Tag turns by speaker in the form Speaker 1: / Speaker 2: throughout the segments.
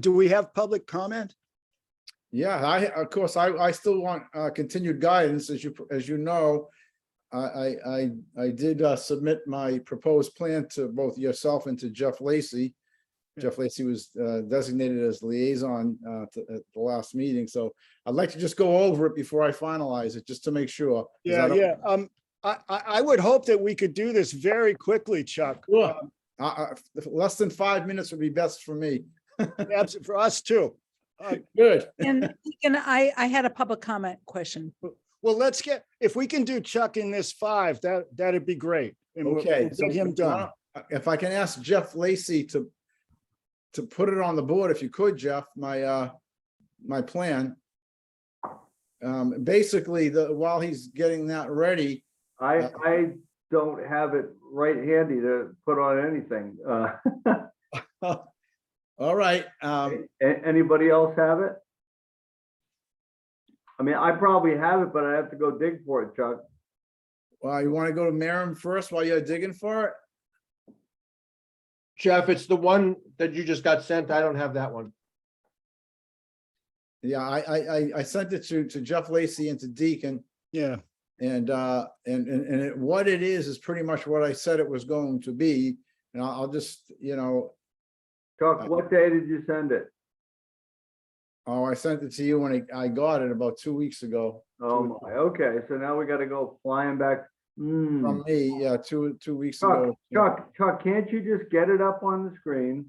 Speaker 1: do we have public comment?
Speaker 2: Yeah, I, of course, I, I still want uh, continued guidance, as you, as you know. I, I, I, I did uh, submit my proposed plan to both yourself and to Jeff Lacy. Jeff Lacy was uh, designated as liaison uh, to- at the last meeting, so I'd like to just go over it before I finalize it, just to make sure. 'cause I
Speaker 1: Yeah,
Speaker 2: don't-
Speaker 1: yeah. Um, I, I, I would hope that we could do this very quickly, Chuck.
Speaker 2: Sure. I- I- Less than five minutes would be best for me.
Speaker 1: Abs- For us too.
Speaker 2: Good.
Speaker 3: And Deacon, I, I had a public comment question.
Speaker 1: Well, let's get, if we can do Chuck in this five, that, that'd be great. And we'll-
Speaker 2: Okay.
Speaker 1: we'll
Speaker 2: so
Speaker 1: Get him done.
Speaker 2: If I can ask Jeff Lacy to, to put it on the board, if you could, Jeff, my, uh, my plan. Um, basically, the, while he's getting that ready,
Speaker 4: I,
Speaker 2: Uh,
Speaker 4: I don't have it right handy to put on anything. Uh,
Speaker 2: all right, um,
Speaker 4: a- anybody else have it? I mean, I probably have it, but I have to go dig for it, Chuck.
Speaker 2: well, you want to go to Merrim first while you're digging for it?
Speaker 5: Jeff, it's the one that you just got sent. I don't have that one.
Speaker 2: Yeah, I, I, I, I sent it to, to Jeff Lacy and to Deacon.
Speaker 1: Yeah,
Speaker 2: And, uh, and, and, and it- what it is, is pretty much what I said it was going to be. And I'll, I'll just, you know, Uh,
Speaker 4: Chuck, what day did you send it?
Speaker 2: oh, I sent it to you when I, I got it about two weeks ago.
Speaker 4: Oh, my, okay, so now we gotta go flying back. Hmm,
Speaker 2: From me, yeah, two, two weeks
Speaker 4: Chuck,
Speaker 2: ago.
Speaker 4: Chuck, Chuck, can't you just get it up on the screen?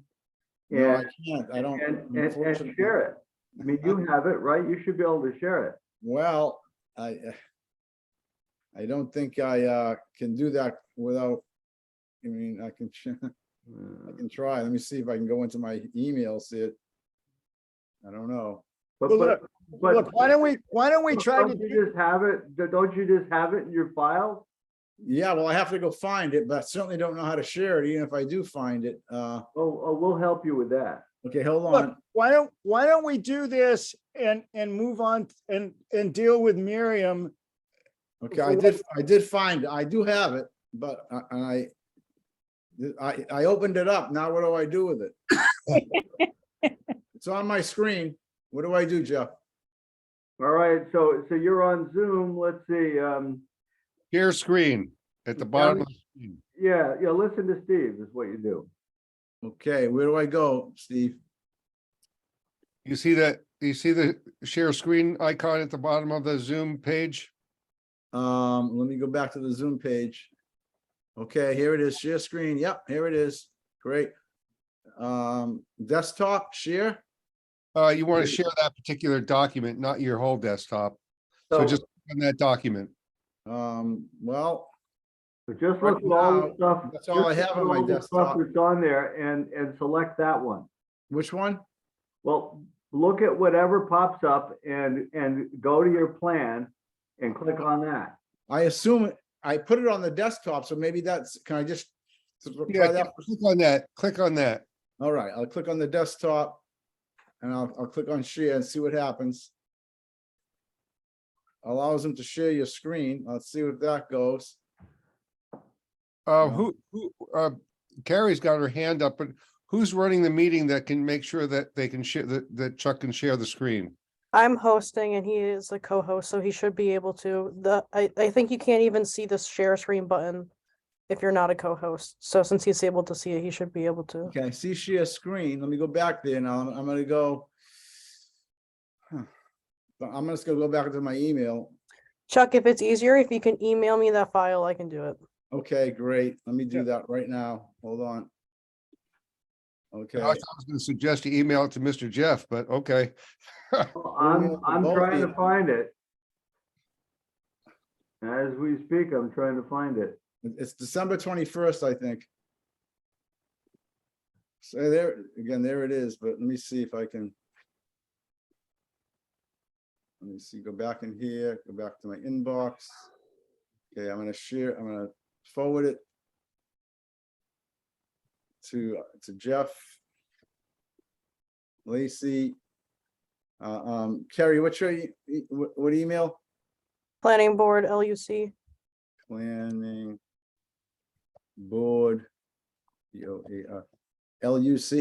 Speaker 2: No, I
Speaker 4: And,
Speaker 2: can't, I don't.
Speaker 4: and, and- and
Speaker 2: unfortunately. Uh,
Speaker 4: share it. I mean, you have it, right? You should be able to share it.
Speaker 2: Well, I, eh, I don't think I, uh, can do that without, I mean, I can, ch- I
Speaker 4: Hmm.
Speaker 2: can try. Let me see if I can go into my email, see it. I don't know.
Speaker 4: But,
Speaker 1: Well,
Speaker 4: but, but.
Speaker 1: look, why don't we, why don't we
Speaker 4: Look,
Speaker 1: try to,
Speaker 4: Don't
Speaker 1: do-
Speaker 4: you just have it, d- don't you just have it in your file?
Speaker 2: Yeah, well, I have to go find it, but I certainly don't know how to share it, even if I do find it. Uh,
Speaker 4: Oh, oh, we'll help you with that.
Speaker 2: okay, hold
Speaker 1: look,
Speaker 2: on.
Speaker 1: why don't, why don't we do this and, and move on and, and deal with Miriam?
Speaker 2: Okay, I did, I did find, it. I do have it, but I, and I, I, I opened it up. Now what do I do with it? It's on my screen. What do I do, Jeff?
Speaker 4: All right, so, so you're on Zoom, let's see, um,
Speaker 5: Share screen at the bottom. of the screen.
Speaker 4: yeah, yeah, listen to Steve is what you do.
Speaker 2: Okay, where do I go, Steve?
Speaker 5: You see that, you see the share screen icon at the bottom of the Zoom page?
Speaker 2: Um, let me go back to the Zoom page. Okay, here it is, share screen. Yep, here it is. Great. Um, desktop share.
Speaker 5: Uh, you want to share that particular document, not your whole desktop. So
Speaker 4: So,
Speaker 5: just on that document.
Speaker 2: Um, well,
Speaker 4: so just look at all the stuff.
Speaker 2: that's all I
Speaker 4: just
Speaker 2: have
Speaker 4: look
Speaker 2: on
Speaker 4: at
Speaker 2: my
Speaker 4: all the stuff
Speaker 2: desktop.
Speaker 4: That's on there and, and select that one.
Speaker 2: which one?
Speaker 4: Well, look at whatever pops up and, and go to your plan and click on that.
Speaker 2: I assume I put it on the desktop, so maybe that's, can I just? try
Speaker 5: Yeah,
Speaker 2: that?
Speaker 5: click on that, click on that.
Speaker 2: All right, I'll click on the desktop. And I'll, I'll click on share and see what happens. Allows them to share your screen. Let's see what that goes.
Speaker 5: Uh,
Speaker 2: Yeah.
Speaker 5: who, who, uh, Carrie's got her hand up, but who's running the meeting that can make sure that they can share, that, that Chuck can share the screen?
Speaker 6: I'm hosting and he is the co-host, so he should be able to. The, I, I think you can't even see the share screen button if you're not a co-host. So since he's able to see it, he should be able to.
Speaker 2: Okay, I see share screen. Let me go back there now. I'm, I'm gonna go. Huh. But I'm just gonna go back to my email.
Speaker 6: Chuck, if it's easier, if you can email me that file, I can do it.
Speaker 2: Okay, great. Let me
Speaker 1: Yeah.
Speaker 2: do that right now. Hold on. Okay.
Speaker 5: Alex, I was gonna suggest you email it to Mr. Jeff, but okay.
Speaker 4: I'm,
Speaker 2: Well,
Speaker 4: I'm
Speaker 2: both
Speaker 4: trying to
Speaker 2: is-
Speaker 4: find it. As we speak, I'm trying to find it.
Speaker 2: It- It's December twenty-first, I think. So there, again, there it is, but let me see if I can. Let me see, go back in here, go back to my inbox. Okay, I'm gonna share, I'm gonna forward it. To, to Jeff. Lacy. Uh, um, Carrie, what's your, e- e- what, what email?
Speaker 6: Planning board, LUC.
Speaker 2: Planning. Board. B O A R, L U C.